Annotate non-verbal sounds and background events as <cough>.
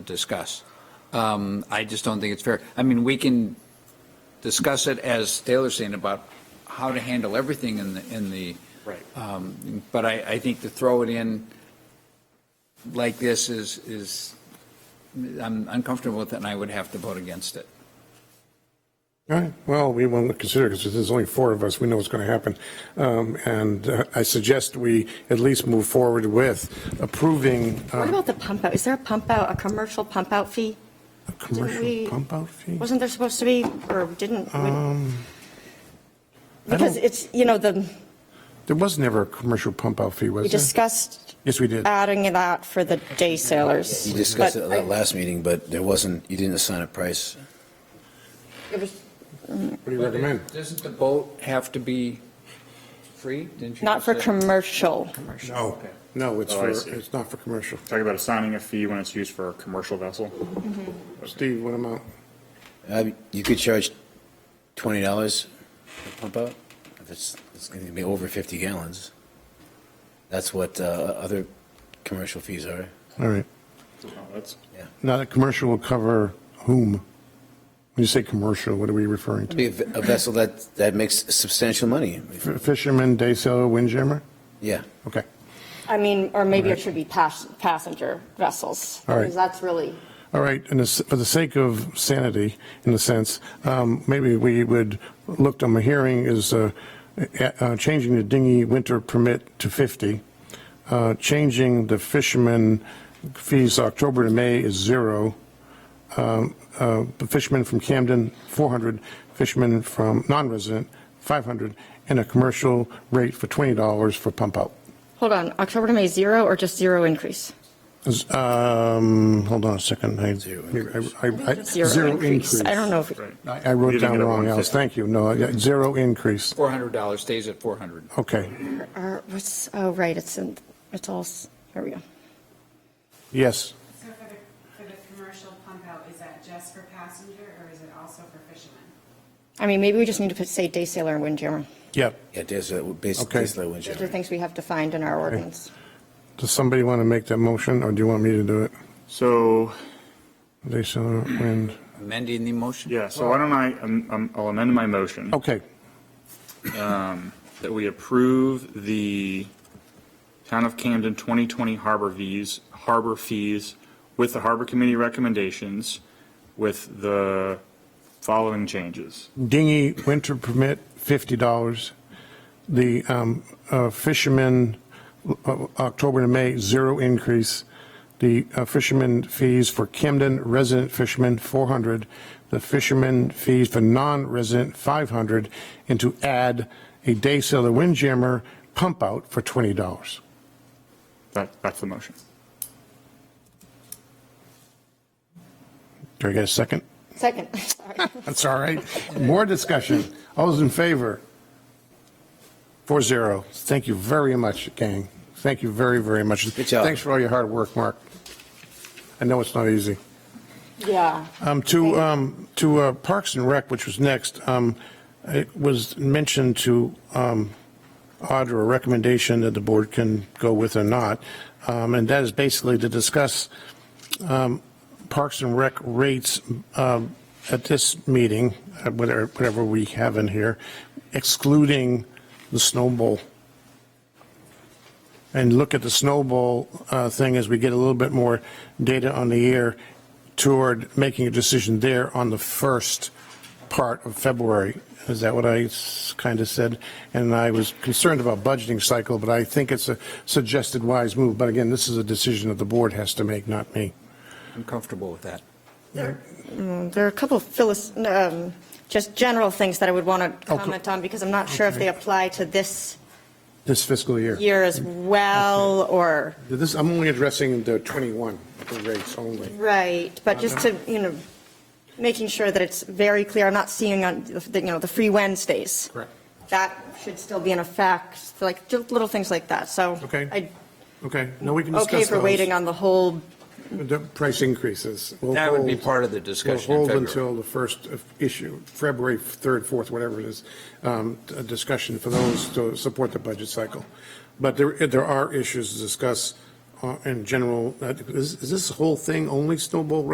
discuss. Um, I just don't think it's fair. I mean, we can discuss it, as Taylor's saying, about how to handle everything in the, in the. Right. Um, But I, I think to throw it in like this is, is, I'm uncomfortable with it, and I would have to vote against it. All right, well, we want to consider, because there's only four of us, we know what's going to happen. Um, And uh, I suggest we at least move forward with approving What uh, about the pump out? Is there a pump out, a commercial pump out fee? a we- commercial pump-out fee. Wasn't there supposed to be, or didn't? we- Um, I Because don't- it's, you know, the, There was never a commercial pump-out fee, was we there? discussed Yes, we did. adding that for the day sailors. You discussed it but at that last meeting, but there wasn't, you didn't assign a price. it was What do you recommend? Doesn't the boat have to be free? Didn't you Not just for say- commercial. No, no, it's Oh, for, I see. it's not for commercial. Talking about assigning a fee when it's used for a commercial vessel. Steve, what amount? Uh, You could charge twenty dollars a pump out, if it's, it's gonna be over fifty gallons. That's what uh, other commercial fees are, All right, Oh, That's, yeah. now that commercial will cover whom? When you say commercial, what are we referring to? Be a v- a vessel that, that makes substantial money, F- Fisherman, day sailor, windjammer? yeah. Okay, I mean, or maybe it should be pas- passenger vessels. All right. Because that's really, all right, and this- for the sake of sanity, in a sense, um, maybe we would, look on my hearing is uh, uh, uh, changing the dinghy winter permit to 50, uh, changing the fisherman fees October to May is zero, uh, the fisherman from Camden, 400, fisherman from non-resident, 500, and a commercial rate for $20 for pump out. hold on, October to May, zero or just zero increase? Is- Um, hold on a second. I- Zero I- I- I- Zero increase. I don't know if, right. I I wrote You didn't down get a wrong, Alice. 150. Thank you. No, I- zero increase. $400 stays at 400. Okay. or what's, oh, right, it's in, it's all, s- here we go. Yes. So for the, for the commercial pump out, is that just for passenger or is it also for fishermen? I mean, maybe we just need to put, say, day sailor and windjammer. Yep. Yeah, uh, there's a, Okay. basically, Those are things we have defined in our ordinance. Does somebody want to make that motion, or do you want me to do it? uh, so, They saw wind. Amending the motion? yeah, so why don't I, um, um, I'll amend my motion Okay. that we approve the Town of Camden 2020 harbor fees, harbor fees with the Harbor Committee recommendations with the following changes. dinghy winter permit, fifty dollars. The um, uh, fishermen, uh, October to May, zero increase. The uh, fishermen fees for Camden resident fishermen, four hundred. The fishermen fees for non-resident, five hundred. And to add a day sailor windjammer pump out for twenty dollars. That, that's the motion. Do I get a second? Second, sorry. <laughs> That's all right. More discussion. All those in favor? Four zero. Thank you very much, gang. Thank you very, very much. Good job. Thanks for all your hard work, Mark. I know it's not easy. Yeah. Um, to, um, to uh, Parks and Rec, which was next, um, it was mentioned to, um, Audra, a recommendation that the board can go with or not, um, and that is basically to discuss, um, Parks and Rec rates, um, at this meeting, uh, whatever, whatever we have in here, excluding the Snow Bowl. And look at the Snow Bowl, uh, thing as we get a little bit more data on the year toward making a decision there on the first part of February. Is that what I kind of said? And I was concerned about budgeting cycle, but I think it's a suggested wise move. But again, this is a decision that the board has to make, not me. I'm comfortable with that. Um, There are a couple of philis, um, just general things that I would want to Okay. comment on because I'm not sure if they apply to this This fiscal year. year as well or, This, I'm only addressing the 21 rates only. right, but just to, you know, making sure that it's very clear, I'm not seeing on, the- you know, the free Wednesdays. Correct. That should still be in effect, like, just little things like that, so. Okay. I- Okay, no, we can discuss Okay those. for waiting on the whole, The price increases. We'll That would be hold- part of the discussion in We'll hold February. until the first of issue, February 3rd, 4th, whatever it is, um, a discussion for those to support the budget cycle. But there, there are issues to discuss uh, in general, uh, is is this whole thing only snowball